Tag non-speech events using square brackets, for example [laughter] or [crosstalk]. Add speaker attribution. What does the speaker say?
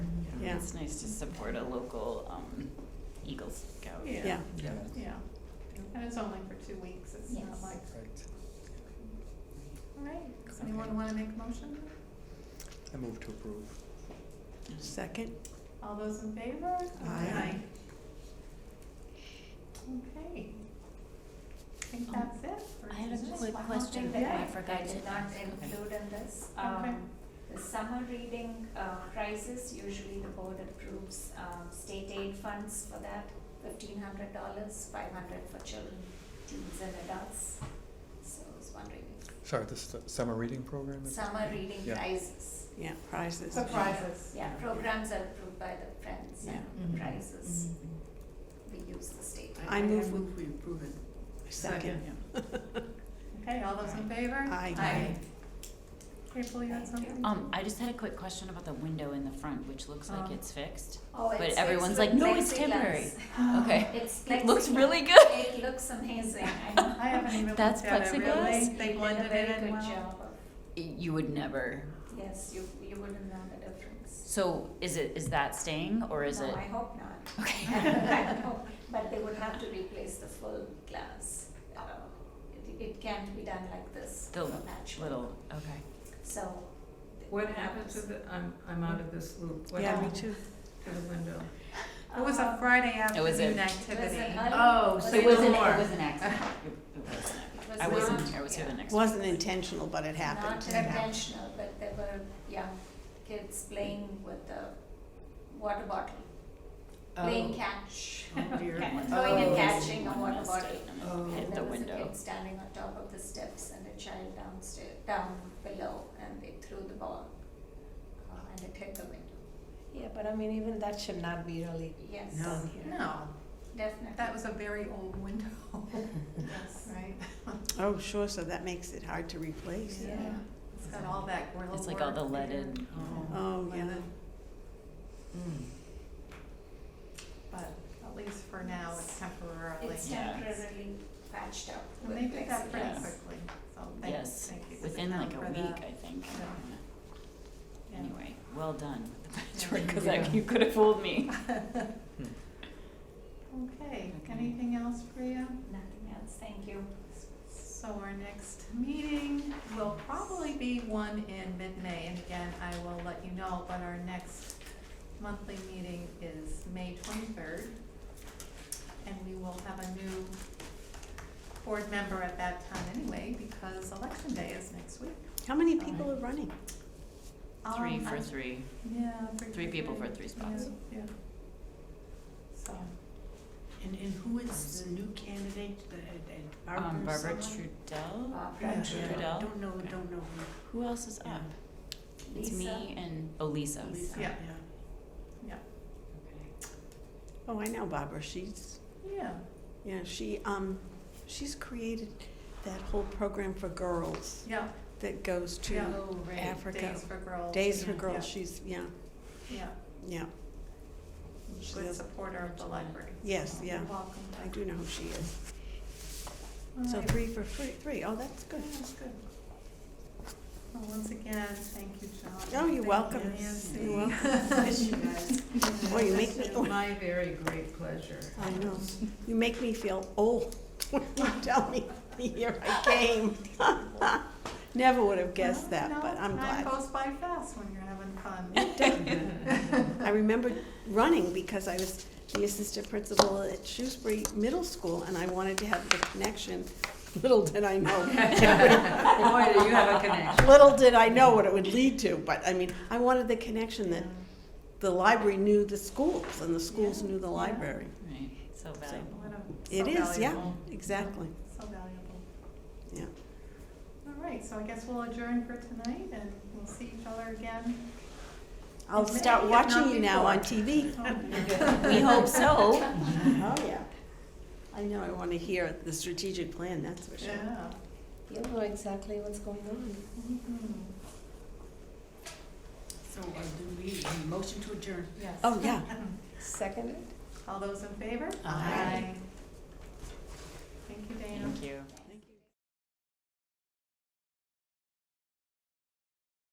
Speaker 1: it's nice to support a local um, Eagle Scout.
Speaker 2: Yeah.
Speaker 3: Yeah.
Speaker 4: Yeah.
Speaker 2: Yeah, and it's only for two weeks, it's not
Speaker 1: Yes.
Speaker 2: like,
Speaker 4: Right.
Speaker 2: all right, does anyone wanna make a motion?
Speaker 4: I move to approve.
Speaker 3: Second?
Speaker 2: All those in favor?
Speaker 3: Aye.
Speaker 2: Okay. I think
Speaker 1: Um,
Speaker 2: that's it. for
Speaker 1: I had a
Speaker 2: today.
Speaker 1: quick
Speaker 5: One more
Speaker 1: question
Speaker 5: thing
Speaker 1: that
Speaker 2: that
Speaker 1: I
Speaker 2: I
Speaker 1: forgot to
Speaker 5: not
Speaker 1: ask.
Speaker 5: include in this.
Speaker 2: Okay.
Speaker 5: Um, The summer reading uh, prices, usually the board approves um, state aid funds for that, fifteen hundred dollars, five hundred for children, teens and adults. So I was wondering if
Speaker 4: Sorry, this is the summer reading program? is-
Speaker 5: summer reading
Speaker 4: Yeah.
Speaker 5: prizes,
Speaker 3: Yeah, prizes.
Speaker 2: Surprises.
Speaker 5: yeah, programs are approved by the friends
Speaker 3: Yeah.
Speaker 1: Mm-hmm.
Speaker 5: and prizes, we use the state. aid.
Speaker 3: I move we-
Speaker 6: we approve it.
Speaker 3: Second.
Speaker 2: Okay, all those in favor?
Speaker 3: Aye.
Speaker 2: Aye. April, you had
Speaker 5: Thank you.
Speaker 2: something?
Speaker 1: Um, I just had a quick question about the window in the front, which looks like
Speaker 2: Um,
Speaker 1: it's fixed.
Speaker 5: Oh,
Speaker 1: But
Speaker 5: it's- it's
Speaker 1: everyone's
Speaker 5: with
Speaker 1: like, "No, it's
Speaker 5: plexiglass.
Speaker 1: temporary." [laughs]
Speaker 5: [laughs]
Speaker 1: Okay.
Speaker 5: It's
Speaker 1: It looks
Speaker 5: plexiglass.
Speaker 1: really good.
Speaker 5: It
Speaker 1: [laughs]
Speaker 5: looks amazing, I know.
Speaker 2: I haven't even looked at
Speaker 1: That's
Speaker 2: it really.
Speaker 1: plexiglass?
Speaker 2: They
Speaker 5: did
Speaker 2: blended it
Speaker 5: A very
Speaker 2: in
Speaker 5: good
Speaker 2: well.
Speaker 5: job of,
Speaker 1: You would never.
Speaker 5: yes, you, you wouldn't know the difference.
Speaker 1: So is it is that staying or is
Speaker 5: No,
Speaker 1: it?
Speaker 5: I hope not. [laughs]
Speaker 1: [laughs]
Speaker 5: I
Speaker 1: Okay.
Speaker 5: hope- But they would have to replace the full glass. Uh, It, it can't be done like this.
Speaker 1: The [laughs]
Speaker 5: naturally.
Speaker 1: Little. Okay.
Speaker 5: So. uh,
Speaker 6: What happened to the, I'm, I'm out of this loop, what
Speaker 3: Yeah,
Speaker 6: happened
Speaker 3: me too.
Speaker 6: to the window?
Speaker 2: It was a
Speaker 5: Um,
Speaker 2: Friday
Speaker 1: It was
Speaker 2: afternoon
Speaker 1: a-
Speaker 2: activity.
Speaker 5: It was an-
Speaker 6: Oh,
Speaker 5: was
Speaker 6: so
Speaker 5: an-
Speaker 6: you
Speaker 1: it was
Speaker 6: no
Speaker 1: an
Speaker 6: more.
Speaker 1: it was an accident. It, it was an accident.
Speaker 5: was
Speaker 1: I wasn't
Speaker 5: not-
Speaker 1: here. I was here the
Speaker 5: yeah.
Speaker 1: next.
Speaker 3: Wasn't intentional, but it happened.
Speaker 5: Not intentional, but there were young kids playing with the water bottle,
Speaker 3: Oh.
Speaker 5: playing catch. [laughs]
Speaker 6: Oh, dear.
Speaker 5: Ca- Throwing and
Speaker 6: Oh.
Speaker 5: catching a
Speaker 1: One
Speaker 5: water
Speaker 1: was
Speaker 5: bottle.
Speaker 1: staying and
Speaker 6: Oh.
Speaker 1: Hit the
Speaker 5: There was a
Speaker 1: window.
Speaker 5: kid standing on top of the steps and a child downstairs, down below, and they threw the ball, uh, and it hit the window.
Speaker 7: Yeah, but I mean, even that should not be really
Speaker 5: Yes,
Speaker 7: done here.
Speaker 2: No,
Speaker 5: definitely.
Speaker 2: that was a very old window, [laughs]
Speaker 5: Yes.
Speaker 2: right?
Speaker 3: Oh, sure, so that makes it hard to replace.
Speaker 5: Yeah.
Speaker 2: It's got all that grill
Speaker 1: It's like all the
Speaker 2: work
Speaker 1: lead
Speaker 2: there.
Speaker 1: in.
Speaker 6: Oh.
Speaker 3: Oh, yeah.
Speaker 2: Leaded.
Speaker 1: Mm.
Speaker 2: But at least for now, it's temporarily.
Speaker 5: It's
Speaker 1: Yeah.
Speaker 5: temporarily patched up
Speaker 2: And
Speaker 5: with
Speaker 2: they did that pretty
Speaker 5: plexiglass.
Speaker 1: Yes.
Speaker 2: quickly, so thank,
Speaker 1: Yes,
Speaker 2: thank you to the
Speaker 1: within like a
Speaker 2: town for
Speaker 1: week,
Speaker 2: that.
Speaker 1: I think.
Speaker 2: Yeah. Yeah.
Speaker 1: Anyway, well done [laughs] with the patchwork,
Speaker 2: Yeah.
Speaker 1: because you could have fooled me.
Speaker 2: Okay,
Speaker 1: Okay.
Speaker 2: anything else for you?
Speaker 5: Nothing else, thank you.
Speaker 2: So our next meeting will probably be one in mid-May, and again, I will let you know, but our next monthly meeting is May twenty-third. And we will have a new board member at that time anyway, because election day is next week.
Speaker 3: How many people are running?
Speaker 1: Three
Speaker 2: Um,
Speaker 1: for
Speaker 2: I-
Speaker 1: three.
Speaker 2: Yeah.
Speaker 1: Three people for three spots.
Speaker 2: Yeah, yeah. So,
Speaker 6: And, and who is the new candidate,
Speaker 1: Um, Barbara
Speaker 5: someone? Uh,
Speaker 1: Trudell?
Speaker 5: Barbara
Speaker 6: Yeah.
Speaker 1: Trudell?
Speaker 5: Trudell,
Speaker 6: know,
Speaker 1: don't
Speaker 6: know
Speaker 1: Who else is up? It's me
Speaker 5: Lisa,
Speaker 1: and, oh, Lisa. [laughs]
Speaker 2: Lisa. Yeah.
Speaker 1: Okay.
Speaker 3: Oh, I know Barbara, she's,
Speaker 2: yeah,
Speaker 3: yeah, she, um, she's created that whole program for girls
Speaker 2: yeah,
Speaker 3: that goes
Speaker 2: Yeah.
Speaker 3: to
Speaker 1: Oh, right.
Speaker 3: Africa.
Speaker 2: days for girls.
Speaker 3: Days for
Speaker 2: yeah,
Speaker 3: Girls, she's, yeah,
Speaker 2: Yeah, yeah.
Speaker 3: yeah, She
Speaker 2: good
Speaker 3: does-
Speaker 2: supporter of the library.
Speaker 3: yes,
Speaker 2: You're
Speaker 3: yeah,
Speaker 2: Welcome.
Speaker 3: I do know who she is.
Speaker 2: All
Speaker 3: So
Speaker 2: right.
Speaker 3: three for free, three, oh, that's
Speaker 2: Yeah,
Speaker 3: good. [laughs]
Speaker 2: that's good. Well, once again, thank you, John.
Speaker 3: Oh, you're welcome.
Speaker 2: Thank you, Nancy. [laughs]
Speaker 3: You're Oh, you make me, oh,
Speaker 6: My very great pleasure.
Speaker 3: I know, you make me feel old [laughs] when you tell me the year I came. [laughs] Never would have guessed that,
Speaker 2: Well,
Speaker 3: but
Speaker 2: no,
Speaker 3: I'm glad.
Speaker 2: Time goes by fast when you're having
Speaker 3: [laughs]
Speaker 2: fun.
Speaker 3: I remember running because I was the assistant principal at Shrewsbury Middle School, and I wanted to have the connection. Little did I know,
Speaker 6: Boy, do you have a connection.
Speaker 3: little did I know what it would lead to, but I mean, I wanted the connection that the library knew the schools and the schools
Speaker 2: Yeah,
Speaker 3: knew the
Speaker 2: yeah.
Speaker 3: library.
Speaker 1: Right, so valuable.
Speaker 2: What a-
Speaker 3: It
Speaker 2: so
Speaker 3: is, yeah,
Speaker 2: valuable.
Speaker 3: exactly,
Speaker 2: So valuable.
Speaker 3: yeah.
Speaker 2: All right, so I guess we'll adjourn for tonight and we'll see each other again.
Speaker 3: [laughs] I'll
Speaker 2: Maybe
Speaker 3: start
Speaker 2: if
Speaker 3: watching
Speaker 2: not
Speaker 3: you now on
Speaker 2: before.
Speaker 3: TV.
Speaker 1: We hope so.
Speaker 3: Oh, yeah. I know, I want to hear the strategic plan, that's for sure.
Speaker 2: [laughs] Yeah.
Speaker 7: You know exactly what's going on.
Speaker 2: Mhm.
Speaker 6: So, uh, do we, motion to adjourn?
Speaker 2: Yes.
Speaker 3: Oh, yeah.
Speaker 7: Seconded?
Speaker 2: All those in favor?
Speaker 1: Aye.
Speaker 2: Thank you, Dana.
Speaker 1: Thank you.